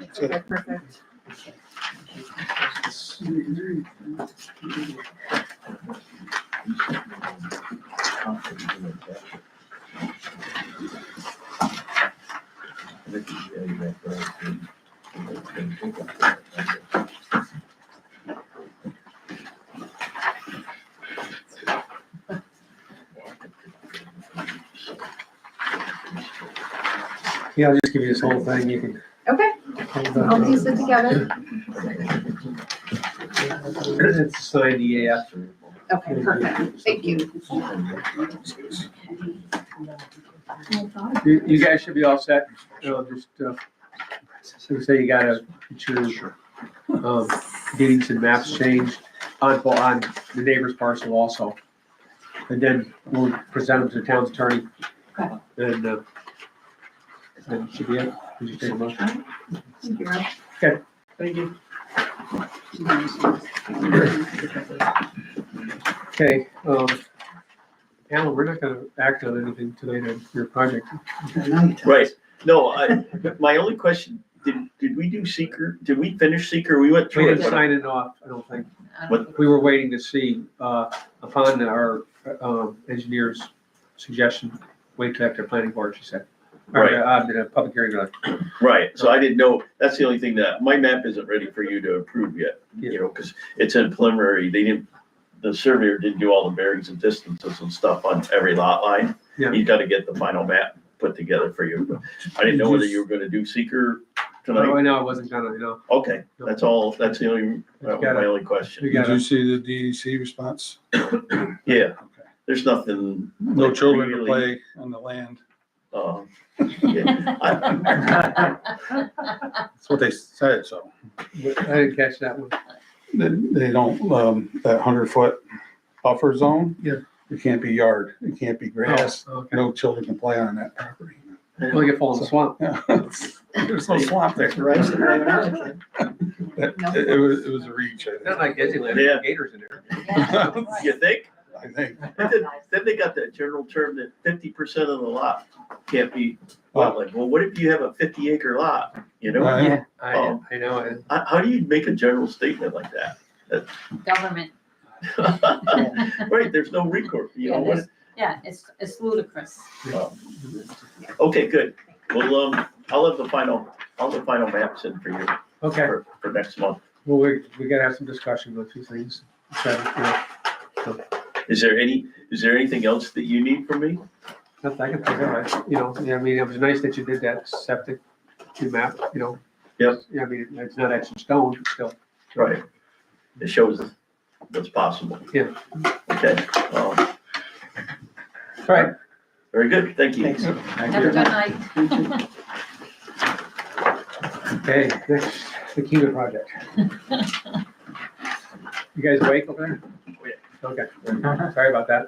Okay, perfect. Yeah, I'll just give you this whole thing, you can. Okay, hold I'll on. piece it together. It's ninety eight. Okay, perfect. Thank you. You, you guys should be all set, so just, uh, so say you gotta get your, um, deeds and maps changed on, on the neighbor's parcel also. And then we'll present them to the town's attorney. Okay. And, uh, then should be it. Would you take a motion? Thank you, Rob. Thank you. Okay, um, Alan, we're not gonna act on anything tonight on your project. Right, no, I, my only question, did, did we do seeker, did we finish seeker? We went We through didn't it. sign it off, I don't think. What- We were waiting to see, uh, upon our, um, engineer's suggestion, wait till after planning board, she said. Or, Right. uh, in a public hearing, uh, Right, so I didn't know, that's the only thing that, my map isn't ready for you to approve yet, you know, because it's in preliminary, they didn't, the surveyor didn't do all the bearings and distances and stuff on every lot line. Yeah. You gotta get the final map put together for you. I didn't know whether you were gonna do seeker tonight. right now, oh, I wasn't gonna, you know, Okay, that's all, that's the only, that was my only question. we Did gotta, you see the DEC response? Yeah, there's nothing. No like, children to really, play on the land. um, yeah, I- That's what they said, so. I didn't catch that one. They, they don't, um, that hundred foot buffer zone. Yeah. It can't be yard, it can't be grass, Oh, Okay, no children can play on that property. well, you fall in the swamp. Yeah, There's no swamp there. It, it was, it was a reach, Not I like Disneyland, Yeah. there's gators in there. think. You think? I think, But Then then they got that general term that fifty percent of the lot can't be wetland. Well, what if you have a fifty acre lot, you know? Right. Yeah. I, I know, it. How, how do you make a general statement like Government, that? Right, there's no recourse, you know, yeah, what, it's, yeah, it's, it's ludicrous. okay, good. Well, um, I'll have the final, I'll have the final maps in for you okay. for, for next month. Well, we, we gotta have some discussion with a few things. Okay, yeah, Is there any, is there anything else that you need from me? Nothing I can think of, I- you know, yeah, I mean, it was nice that you did that septic, you map, you know. Yep. Yeah, I mean, it's not etched in stone, but still, Right. It shows what's possible. Yeah. Okay, um, all right. very good, thank you. Thanks. Have a good night. Okay, next, the Kiva project. You guys awake over there? Okay, sorry about that.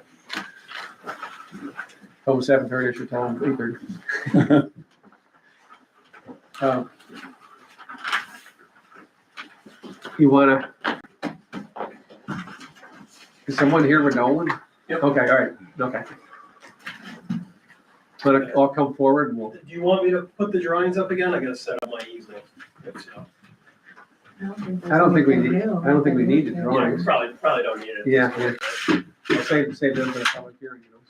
Home seven thirty, it's your time, eight thirty. Um, You wanna? Is someone here with Nolan? Yep. Okay, all right, okay. But I'll come forward and we'll, Do you want me to put the drawings up again? I gotta set up my easel. So, I don't think we need- I don't think we need to draw. Yeah, we probably, probably don't need it. yeah, yeah. I'll save, save them for the public hearing, you know.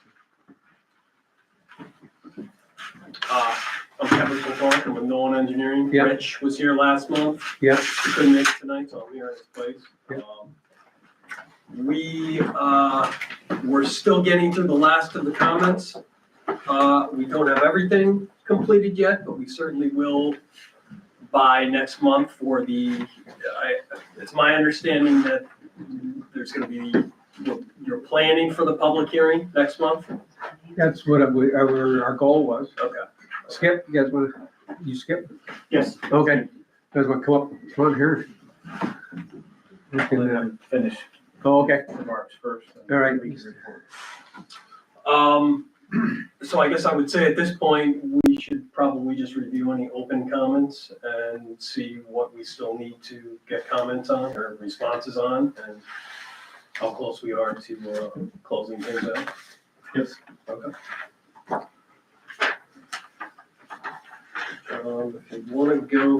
Uh, I'm Kevin Kilcorn, I'm with Nolan Engineering. Yeah. Rich was here last month. Yeah. He Couldn't make it tonight, so I'm here in his place. Yeah. Um, We, uh, we're still getting through the last of the comments. Uh, we don't have everything completed yet, but we certainly will by next month for the, I, it's my understanding that there's gonna be, you're- you're planning for the public hearing next month? That's what I- we, our, our goal was. Okay. Skip, you guys want, you skip? Yes. Okay. You guys want to come up, come on here? We can, uh, Finish Oh, okay, remarks first. all right. Um, so I guess I would say at this point, we should probably just review any open comments and see what we still need to get comments on or responses on and how close we are to, uh, closing things out. Yes. Okay. Um, if you wanna go